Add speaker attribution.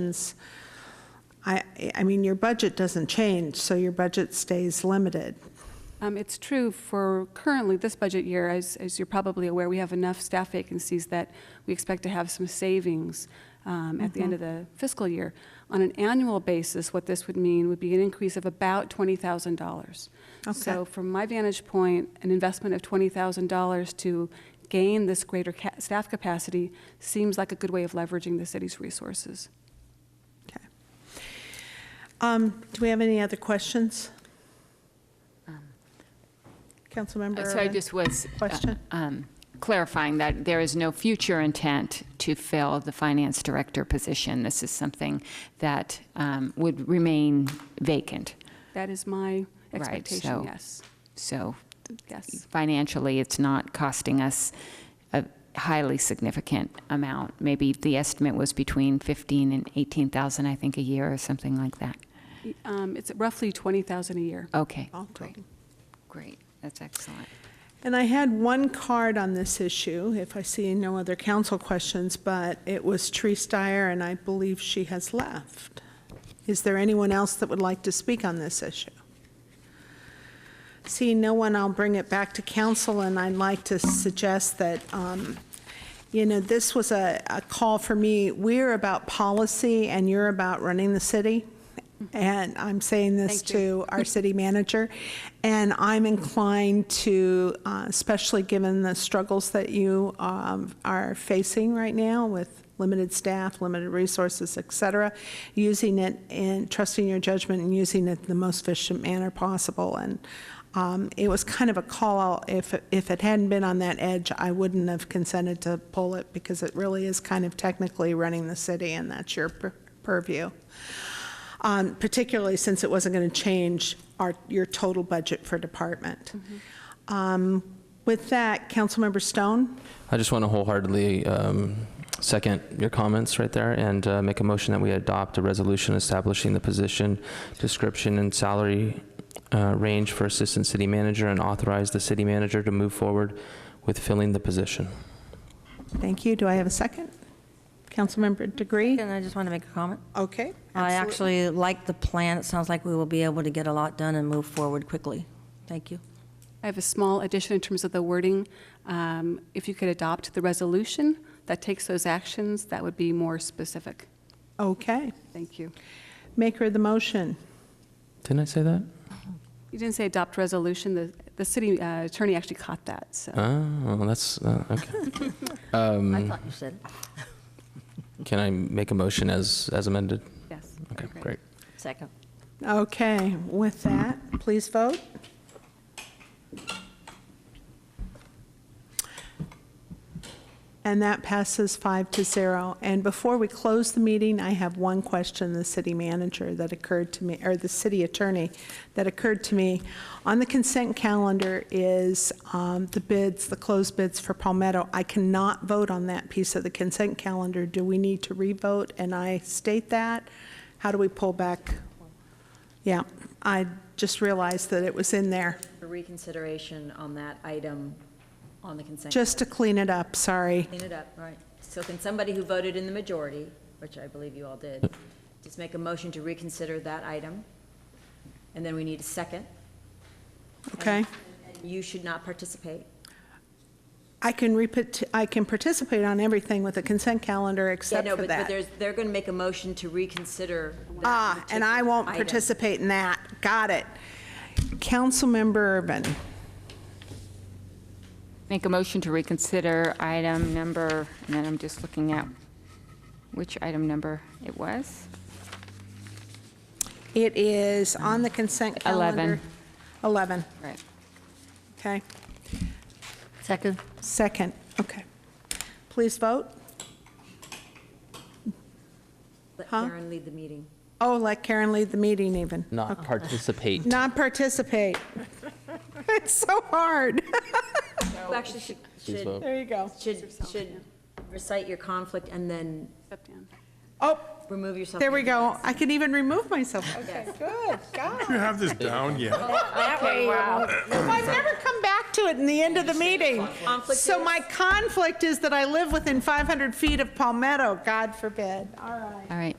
Speaker 1: is, I, I mean, your budget doesn't change, so your budget stays limited.
Speaker 2: Um, It's true for currently this budget year, as, as you're probably aware, we have enough staff vacancies that we expect to have some savings um, at the
Speaker 3: Mm-hmm.
Speaker 2: end of the fiscal year. On an annual basis, what this would mean would be an increase of about $20,000. So from my vantage point, an investment of $20,000 to gain this greater ca- staff capacity seems like a good way of leveraging the city's resources.
Speaker 1: Okay. Um, Do we have any other questions? Councilmember
Speaker 3: Um, So I
Speaker 1: Urban?
Speaker 3: just was uh,
Speaker 1: Question?
Speaker 3: um, clarifying that there is no future intent to fill the finance director position. This is something that um, would remain vacant.
Speaker 2: That is my
Speaker 3: Right,
Speaker 2: expectation,
Speaker 3: so-
Speaker 2: yes.
Speaker 3: So
Speaker 2: Yes.
Speaker 3: financially, it's not costing us a highly significant amount. Maybe the estimate was between 15 and 18,000, I think, a year or something like that.
Speaker 2: Um, It's roughly 20,000 a year.
Speaker 3: Okay,
Speaker 1: All
Speaker 3: great,
Speaker 1: total.
Speaker 3: great. That's excellent.
Speaker 1: And I had one card on this issue, if I see no other council questions, but it was Tree Steyer, and I believe she has left. Is there anyone else that would like to speak on this issue? Seeing no one, I'll bring it back to council, and I'd like to suggest that, um, you know, this was a, a call for me. We're about policy, and you're about running the city. And I'm saying this
Speaker 2: Thank
Speaker 1: to our city manager. And I'm inclined to, uh, especially given the struggles that you um, are facing right now with limited staff, limited resources, et cetera, using it and trusting your judgment and using it in the most efficient manner possible. And um, it was kind of a call out. If, if it hadn't been on that edge, I wouldn't have consented to pull it because it really is kind of technically running the city and that's your pur- purview. Um, particularly since it wasn't going to change our, your total budget for department.
Speaker 4: Mm-hmm.
Speaker 1: Um, With that, Councilmember Stone?
Speaker 5: I just want to wholeheartedly um, second your comments right there and uh, make a motion that we adopt a resolution establishing the position description and salary uh, range for assistant city manager and authorize the city manager to move forward with filling the position.
Speaker 1: Thank you. Do I have a second? Councilmember Degree?
Speaker 4: And I just want to make a comment.
Speaker 1: Okay.
Speaker 4: I
Speaker 1: absolutely.
Speaker 4: actually like the plan. It sounds like we will be able to get a lot done and move forward quickly. Thank you.
Speaker 2: I have a small addition in terms of the wording. Um, If you could adopt the resolution that takes those actions, that would be more specific.
Speaker 1: Okay.
Speaker 2: Thank you.
Speaker 1: Maker of the motion.
Speaker 5: Didn't I say that?
Speaker 2: You didn't say adopt resolution, the, the city uh, attorney actually caught that, so.
Speaker 5: Oh, that's, uh, okay.
Speaker 4: I thought you said it.
Speaker 5: Can I make a motion as, as amended?
Speaker 2: Yes.
Speaker 5: Okay, great.
Speaker 4: Second.
Speaker 1: Okay. With that, please vote. And that passes five to zero. And before we close the meeting, I have one question, the city manager that occurred to me, or the city attorney that occurred to me. On the consent calendar is um, the bids, the closed bids for Palmetto. I cannot vote on that piece of the consent calendar. Do we need to re-vote? And I state that. How do we pull back? Yeah, I just realized that it was in there.
Speaker 6: for reconsideration on that item on the consent.
Speaker 1: Just to clean it up, sorry.
Speaker 6: Clean it up, right. So can somebody who voted in the majority, which I believe you all did, just make a motion to reconsider that item? And then we need a second.
Speaker 1: Okay.
Speaker 6: And You should not participate.
Speaker 1: I can repeat, I can participate on everything with a consent calendar
Speaker 6: Yeah,
Speaker 1: except
Speaker 6: no,
Speaker 1: for
Speaker 6: but but
Speaker 1: that.
Speaker 6: there's, they're going to make a motion to reconsider. that
Speaker 1: Ah, and I
Speaker 6: particular
Speaker 1: won't
Speaker 6: item.
Speaker 1: participate in that. Got it. Councilmember Urban,
Speaker 3: Make a motion to reconsider item number, and then I'm just looking at which item number it was.
Speaker 1: it is on the consent calendar.
Speaker 3: Eleven.
Speaker 1: 11.
Speaker 3: Right.
Speaker 1: okay.
Speaker 4: Second.
Speaker 1: Second, okay. Please vote.
Speaker 6: Let
Speaker 1: Huh?
Speaker 6: Karen lead the meeting.
Speaker 1: Oh, let Karen lead the meeting even.
Speaker 5: Not participate.
Speaker 1: Not participate. It's so hard.
Speaker 6: You actually should,
Speaker 5: Please
Speaker 6: should,
Speaker 5: vote.
Speaker 1: There you go.
Speaker 6: should, should recite your conflict and then
Speaker 2: Step down.
Speaker 1: Oh,
Speaker 6: remove yourself.
Speaker 1: there we
Speaker 6: from
Speaker 1: go.
Speaker 6: the-
Speaker 1: I can even remove myself. Okay,
Speaker 6: Yes.
Speaker 1: good, God.
Speaker 7: you have this down yet?
Speaker 1: I've never come back to it in the end of the meeting.
Speaker 6: Conflict
Speaker 1: So
Speaker 6: is?
Speaker 1: my conflict is that I live within 500 feet of Palmetto, God forbid. All right.
Speaker 3: All right.